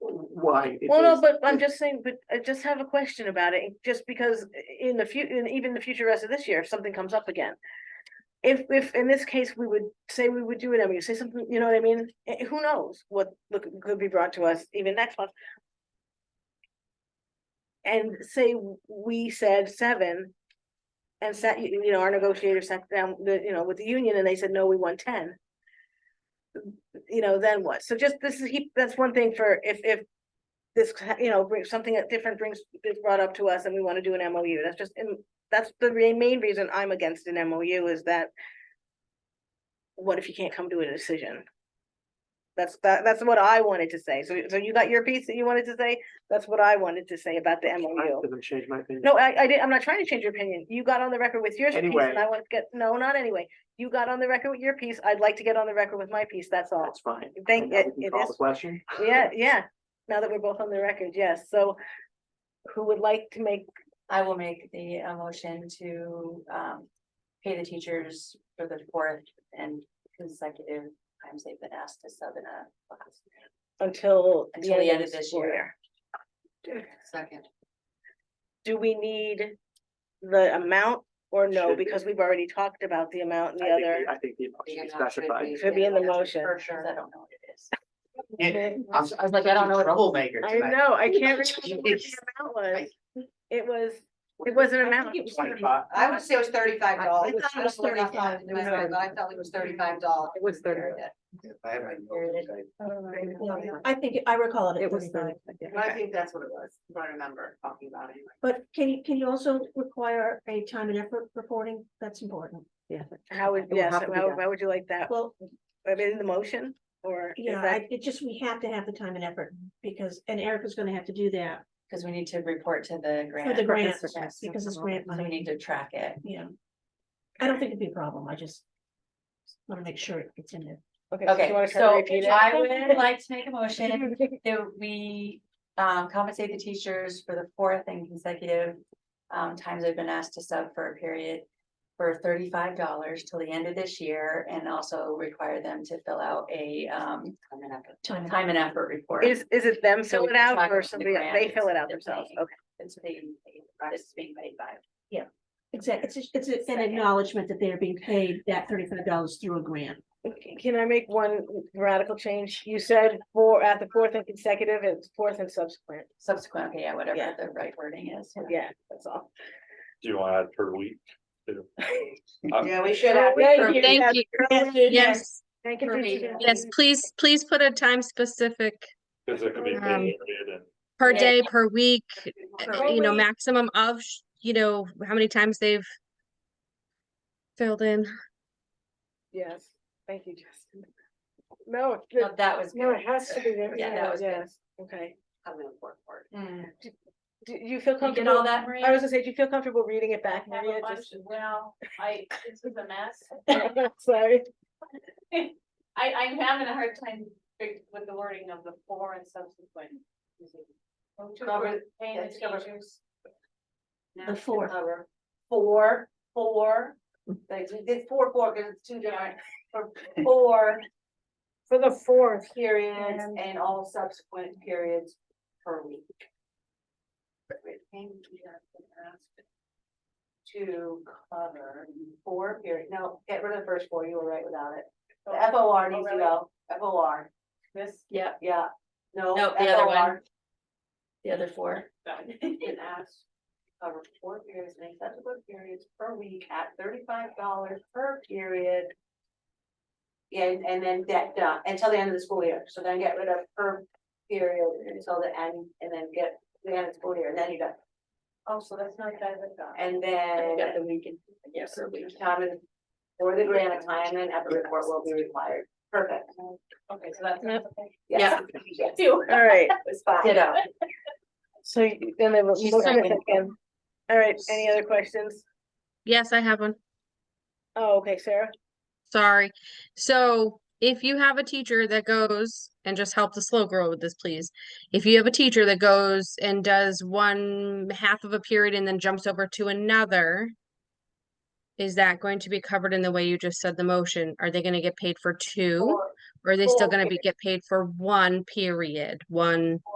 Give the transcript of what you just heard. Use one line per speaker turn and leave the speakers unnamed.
why. it
Well, no,
is-
but I'm just saying, but I just have a question about it, just because i- in the fut- in even the future rest of this year, if something comes up again. If, if in this case, we would say we would do it, I mean, say something, you know what I mean? Eh, Who knows what look could be brought to us even next month? And say w- we said seven. And sat, you you know, our negotiator sat down, the, you know, with the union and they said, no, we want ten. You know, then what? So just this is, he- that's one thing for if, if this, ca- you know, brings something that different brings, is brought up to us and we want to do an MOU. That's just, and that's the re- main reason I'm against an MOU is that what if you can't come to a decision? That's, that, that's what I wanted to say. So, so you got your piece that you wanted to say? That's what I wanted to say about the
I
MOU.
haven't changed my opinion.
No, I, I did, I'm not trying to change your opinion. You got on the record with your piece
Anyway.
and I want to get, no, not anyway. You got on the record with your piece. I'd like to get on the record with my piece. That's all.
That's fine.
Thank-
Now we
it-
can
it
call
is-
the Question.
Yeah, yeah. Now that we're both on the record, yes. So who would like to make,
I will make the uh, motion to um pay the teachers for the fourth and consecutive times they've been asked to sub in a class.
until the
Until
end of this school
year.
year?
Second.
Do we need the amount or no?
Should be.
Because we've already talked about the amount and
I
the
think
other.
the- I think the motion is specified.
Should be in the motion.
For sure, I don't know what it is.
I
I was I was like, I don't know what.
Troublemaker tonight.
know, I can't remember what
It's-
the amount was. It was, it was an amount.
Twenty-five.
I would say it was thirty-five dollars.
I thought it was $35.
But I thought it was thirty-five dollars.
It was
I have my notes, okay.
I think, I recall it. It was thirty.
I think that's what it was, if I remember talking about it.
But can you, can you also require a time and effort reporting? That's important.
How would, yes, how, how would you like that?
Well,
I mean, in the motion or? is
yeah,
that-
I, it just, we have to have the time and effort because, and Erica's gonna have to do that
Because we need to report to the
for
grant.
the grant,
Yes. So
because it's grant
we
money,
need to track it.
yeah. I don't think it'd be a problem. I just wanna make sure it's in there.
do
Okay,
you wanna try to
so
repeat it?
I would like to make a motion that we um compensate the teachers for the fourth and consecutive. Um times they've been asked to sub for a period for thirty-five dollars till the end of this year and also require them to fill out a um.
Time and
Time and effort report.
Is, is it them
So
fill
we
it
can
out
track it
or
with the
somebody, else?
grant
they fill it
instead
out
of
themselves?
saying-
Okay,
It's being paid, it's being paid by.
Exactly. It's, just- it's an
Second.
acknowledgement that they're being paid that thirty-five dollars through a grant.
Okay, Can I make one radical change? You said for, at the fourth and consecutive, it's fourth and subsequent.
Subsequent, okay, yeah,
Yeah.
whatever the right wording is.
Yeah, that's all.
Do you want to add per week? Uh, too?
Yeah, we should
have-
have.
Thank you.
Thank you.
Yes.
Thank you. for
Perfect.
doing
Yes,
that.
please, please put a time specific
Because it could be
Um,
paid and
per
Yeah.
day, per week,
Per
uh, you know,
week.
maximum of, sh- you know, how many times they've filled in.
Yes, thank you, Justin. No, it's good.
That was.
no, it
good.
has to be there.
Yeah, that was good.
Yes, okay.
Mm.
Do you feel
You get all
comfortable?
that, Maria?
I was gonna say, do you feel comfortable reading it back,
Have a
Maria?
bunch-
Just-
Well, I, this is a mess.
Sorry.
I, I'm having a hard time fig- with the wording of the four and subsequent. To cover, paying the
that's cover-
teachers.
The four.
Four, four, like we did four, four, because it's two different, for four
For the fourth.
periods and all subsequent periods per week. To cover four period, no, get rid of the first four, you were right without it. The F O R needs to go, F O R,
Oh, This, yeah,
yeah, no.
No, the other one.
FOR.
the other four.
And ask, cover four periods and subsequent periods per week at thirty-five dollars per period. And, and then that, done until the end of the school year, so then get rid of per period until the end, and then get the end of the school year, and then you got.
Oh, so that's not that I've got.
And
And
then.
we got the weekend. Yes, or weekend.
Time and, for the grant, time and effort report will be required, perfect.
Okay, so that's.
Yep.
okay.
Yes. Yes, it
All right,
was fine.
Ditto.
so you- then they will.
She's
motion and
second.
second. All right, any other questions?
Yes, I have one.
Oh, okay, Sarah?
Sorry. So if you have a teacher that goes and just help the slow grow with this, please. If you have a teacher that goes and does one half of a period and then jumps over to another, is that going to be covered in the way you just said the motion? Are they going to get paid for two?
Or-
Or are they still
Four
going to be, get paid for one period, one?